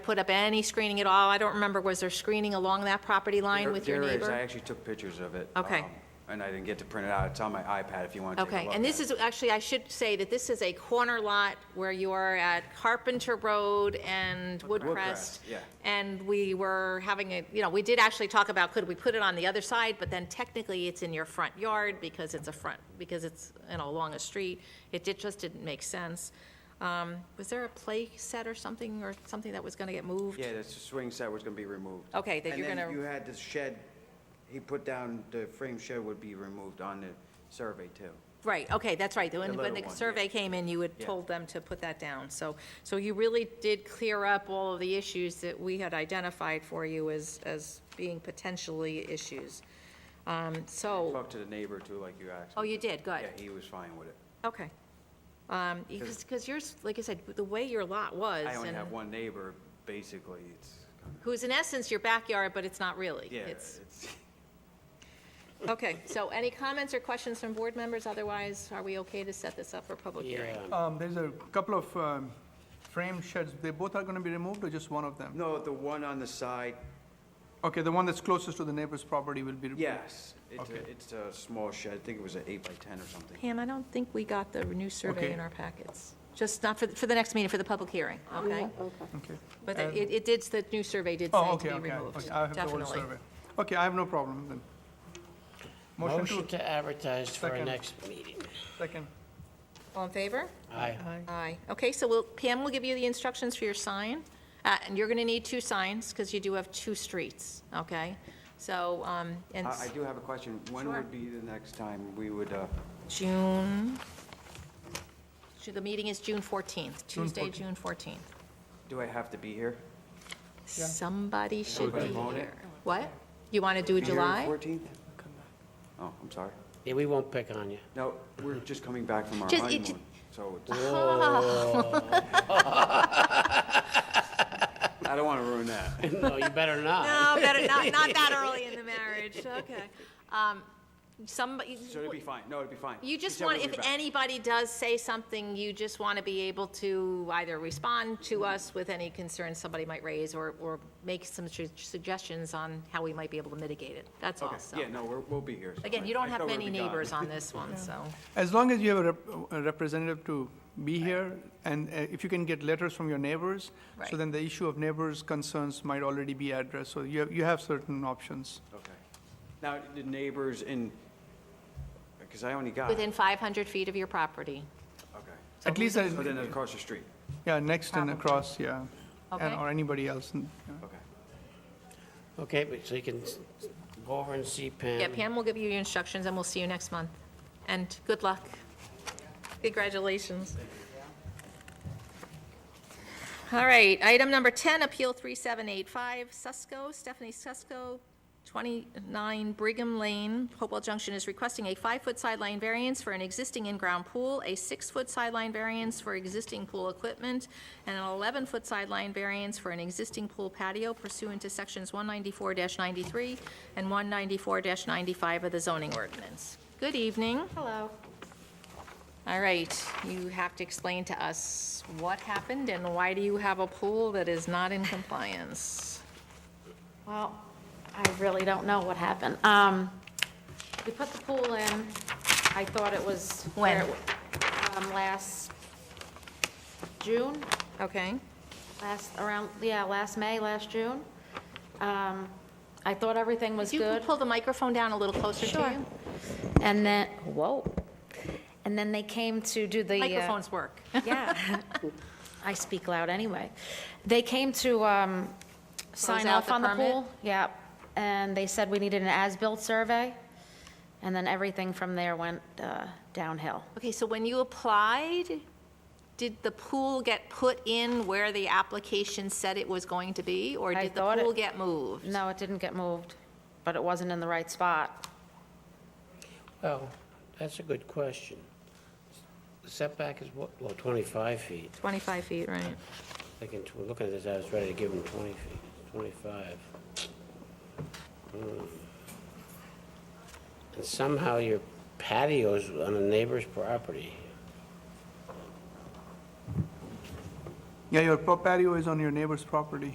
put up any screening at all? I don't remember, was there screening along that property line There- with your there is. I neighbor? actually took pictures of it. Okay. um, And I didn't get to print it out. It's on my iPad if you want to take a Okay, look and at this it. is, actually, I should say that this is a corner lot where you are at Carpenter Road and Woodcrest. Woodcrest, yeah. And we were having a, you know, we did actually talk about, could we put it on the other side? But then technically, it's in your front yard because it's a front, because it's, you know, along a street. It did, just didn't make sense. Um, Was there a play set or something, or something that was going to get moved? Yeah, the swing set was going to be removed. Okay, that you're And gonna- then you had the shed, he put down, the frame shed would be removed on the survey too. Right, okay, that's right. When, when little the one, yeah. survey came in, you had Yeah. told them to put that down. So, so you really did clear up all of the issues that we had identified for you as, as being potentially issues. Um, So, Talked to the neighbor too, like you asked. oh, me you to. did, good, Yeah, he was fine with it. okay. Um, Because, because yours, like I said, the way your lot was. I only and- have one neighbor, basically. It's, kinda- Who's in essence your backyard, but it's not really. yeah, It's- it's, Okay, so any comments or questions from board members? Otherwise, are we okay to set this up for public hearing? Um, There's a couple of um, frame sheds, they both are going to be removed or just one of them? no, the one on the side, Okay, the one that's closest to the neighbor's property will be removed? yes. It's a, Okay. it's a small shed. I think it was an eight by 10 or something. Pam, I don't think we got the new survey Okay. in our packets. Just not for, for the next meeting, for the public hearing, Oh, okay? Okay. But And- it, it did, the new survey did Um, Oh, say okay, to be okay, removed, okay, I have the old definitely. survey. Okay, I have no problem then. Motion Motion to, to advertise for our Second. next meeting. second. All in favor? Aye. Aye. Okay, so we'll, Pam will give you the instructions for your sign, uh, and you're gonna need two signs, because you do have two streets, okay? So, um, and I, I do have a question. When Sure. would be the next time we would, uh, June, Ju- the meeting is June 14th, Tuesday, June 14th. do I have to be here? Somebody should be Everybody vote it? here. What? You wanna do Be here on July? 14th? Oh, I'm sorry. Yeah, we won't pick on you. No, we're just coming back from our Just- it- Oh. honeymoon, so it's- I don't want to ruin that. No, you better not. No, better, not, not that early in the marriage, okay. Um, Somebody, So it'd be fine. No, it'd be fine. you She just said want, we'll if be back. anybody does say something, you just want to be able to either respond to us with any concerns somebody might raise, or, or make some su- suggestions on how we might be able to mitigate it, that's all, Okay, Oh, so. yeah, no, we're, we'll be here. so Again, I- you I don't have thought we would many be gone. neighbors on this one, so. As long as you have a rep- a representative to be here, and uh, if you can get letters from your neighbors, Right. so then the issue of neighbors' concerns might already be addressed, so you have, you have certain options. Okay. Now, the neighbors in, because I only got. Within 500 feet of your property, Okay. At least, uh, So then across the street, yeah, next and Probably. across, yeah, Okay. and, or anybody else. and- yeah. okay. Okay, but so you can s- go over and see Pam. Yeah, Pam will give you your instructions, and we'll see you next month. And good luck. Congratulations. All right, item number 10, Appeal 3785, Susco, Stephanie Susco, 29 Brigham Lane, Hopewell Junction is requesting a five-foot sideline variance for an existing in-ground pool, a six-foot sideline variance for existing pool equipment, and an 11-foot sideline variance for an existing pool patio pursuant to Sections 194-93 and 194-95 of the zoning ordinance. Good evening. Hello. All right, you have to explain to us what happened and why do you have a pool that is not in compliance? Well, I really don't know what happened. Um, we put the pool in, I thought it was. When? where it- Um, last June, Okay, last, around, yeah, last May, last June. Um, I thought everything was you can good. pull the microphone down a little closer to Sure. you? And then, whoa. And then they came to do the. uh, Microphones work. Yeah. I speak loud anyway. They came to um, sign out off the on the permit? pool. Yeah, and they said we needed an as-built survey, and then everything from there went uh, downhill. Okay, so when you applied, did the pool get put in where the application said it was going to be? Or I did the thought it- pool get moved? No, it didn't get moved, but it wasn't in the right spot. Well, Oh, that's a good question. The Setback is what, well, 25 feet. 25 feet, right. Thinking, tw- looking at this, I was ready to give him 20 feet, 25. Hmm. And somehow your patio's on a neighbor's property. Yeah, your pro- patio is on your neighbor's property.